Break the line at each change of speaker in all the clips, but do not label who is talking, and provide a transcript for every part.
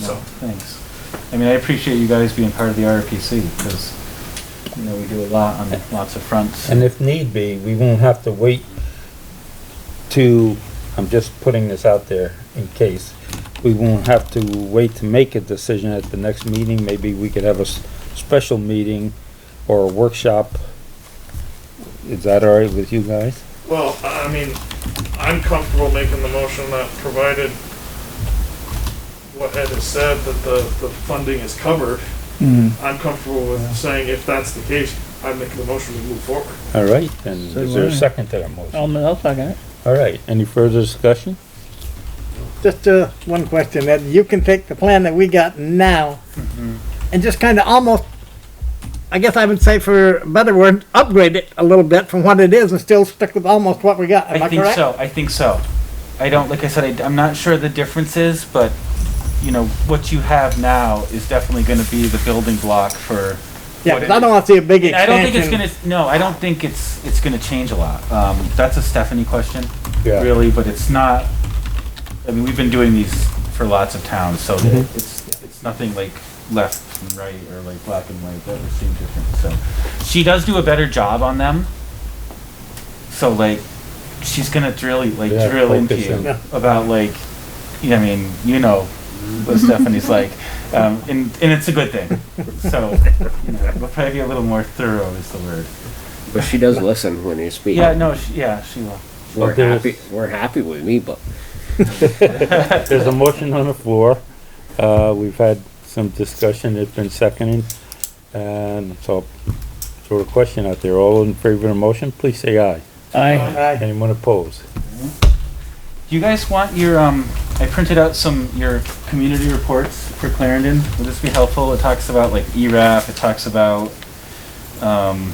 No,
So-
Thanks. I mean, I appreciate you guys being part of the RPC because, you know, we do a lot on lots of fronts.
And if need be, we won't have to wait to, I'm just putting this out there in case, we won't have to wait to make a decision at the next meeting, maybe we could have a s- special meeting or a workshop. Is that all right with you guys?
Well, I I mean, I'm comfortable making the motion that provided what Ed has said, that the, the funding is covered. I'm comfortable with saying if that's the case, I make the motion to move forward.
All right, and
So
is there a
moved.
second to that motion?
I'll, I'll second it.
All right, any further discussion?
Just, uh, one question, that you can take the plan that we got now
Mm-hmm.
and just kinda almost, I guess I would say for a better word, upgrade it a little bit from what it is and still stick with almost what we got, am I
I think
correct?
so. I think so. I don't, like I said, I, am not sure the differences, but, you know, what you have now is definitely going to be the building block for.
Yeah,
what
'cause
it
I don't wanna see a big
I
expansion.
don't think it's gonna, no, I don't think it's, it's gonna change a lot. Um, that's a Stephanie question,
Yeah.
really, but it's not, I mean, we've been doing these for lots of towns, so that it's, it's nothing like left and right or like black and white, that would seem different, so. She does do a better job on them. So like, she's gonna really, like,
Yeah,
drill into
focus in.
you
Yeah.
about like, yeah, I mean, you know what Stephanie's like, um, and, and it's a good thing. So, you know, we'll probably be a little more thorough is the word.
But she does listen when you speak.
Yeah, no, she, yeah, she will.
We're
But there's-
happy, we're happy with me, but
There's a motion on the floor. Uh, we've had some discussion, it's been seconded. And so, sort of question out there, all in favor of the motion, please say aye.
Aye. Aye.
Anyone opposed?
Do you guys want your, um, I printed out some, your community reports for Clarendon. Would this be helpful? It talks about like E ERAF, it talks about, um,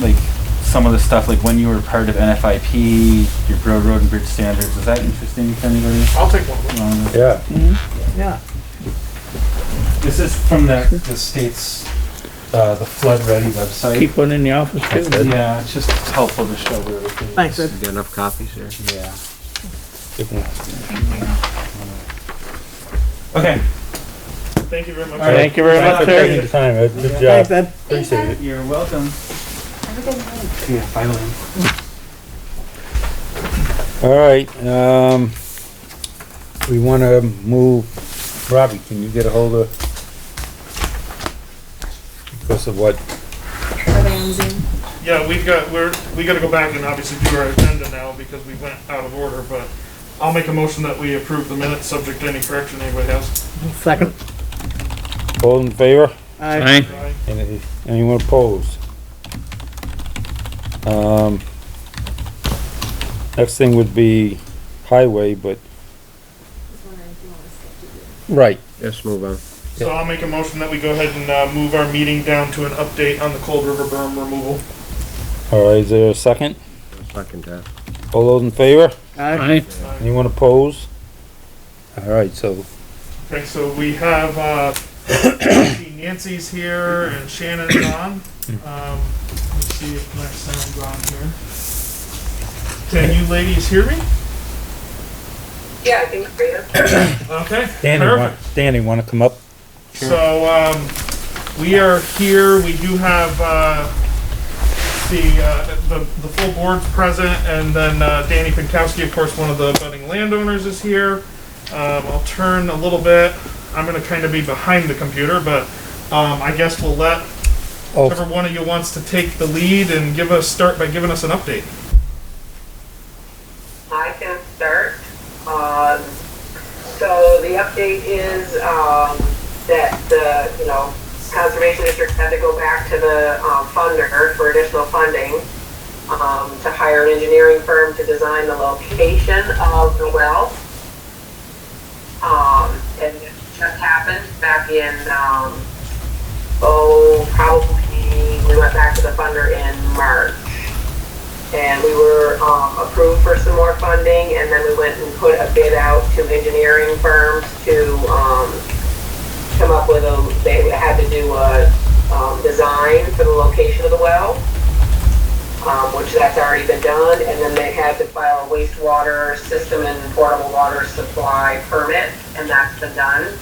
like some of the stuff, like when you were part of NFIP, your road, road and bridge standards. Is that interesting to anybody?
I'll take one.
Um,
Yeah.
Yeah,
This is from the, the state's, uh, the flood ready website.
keep one in the office too.
Yeah, it's just helpful to show where everything is.
Thanks, Ed.
you got enough copies there?
Yeah. Okay.
Thank you very much.
All right. Thank
you very
Thanks for taking the time, Ed. Good
Thanks,
job.
Ed.
Appreciate it.
You're welcome.
Have a good night.
Yeah, finally.
All right, um, we wanna move, Robbie, can you get a hold of? Because of what,
Are they on Zoom?
Yeah, we've got, we're, we gotta go back and obviously do our agenda now because we went out of order, but I'll make a motion that we approve the minutes, subject to any correction anybody has.
Second.
all in favor?
Aye.
Aye.
Any- Anyone opposed? Um, next thing would be highway, but.
Just wondering if you want to skip to Zoom.
Right.
Let's move on.
So I'll make a motion that we go ahead and, uh, move our meeting down to an update on the Cold River berm removal.
All right, is there a second?
Second that.
All those in favor?
Aye.
Anyone opposed? All right, so,
Okay, so we have, uh, Nancy's here and Shannon's on. Um, let's see if my sound's on here. Can you ladies hear me?
Yeah, I think so.
Okay.
Danny, wa-
perfect.
Danny, wanna come up?
So, um, we are here, we do have, uh, the, uh, the, the full board's present, and then, uh, Danny Pinkowski, of course, one of the budding landowners is here. Um, I'll turn a little bit, I'm gonna kinda be behind the computer, but, um, I guess we'll let
Oh.
whichever one of you wants to take the lead and give us, start by giving us an update.
I can start. Um, so the update is, um, that the, you know, Conservation District had to go back to the, um, funder for additional funding, um, to hire an engineering firm to design the location of the well. Um, and it just happened back in, um, oh, probably, we went back to the funder in March and we were um, approved for some more funding, and then we went and put a bid out to engineering firms to um, come up with a, they had to do a um, design for the location of the well, um, which that's already been done, and then they had to file a wastewater system and portable water supply permit, and that's been done.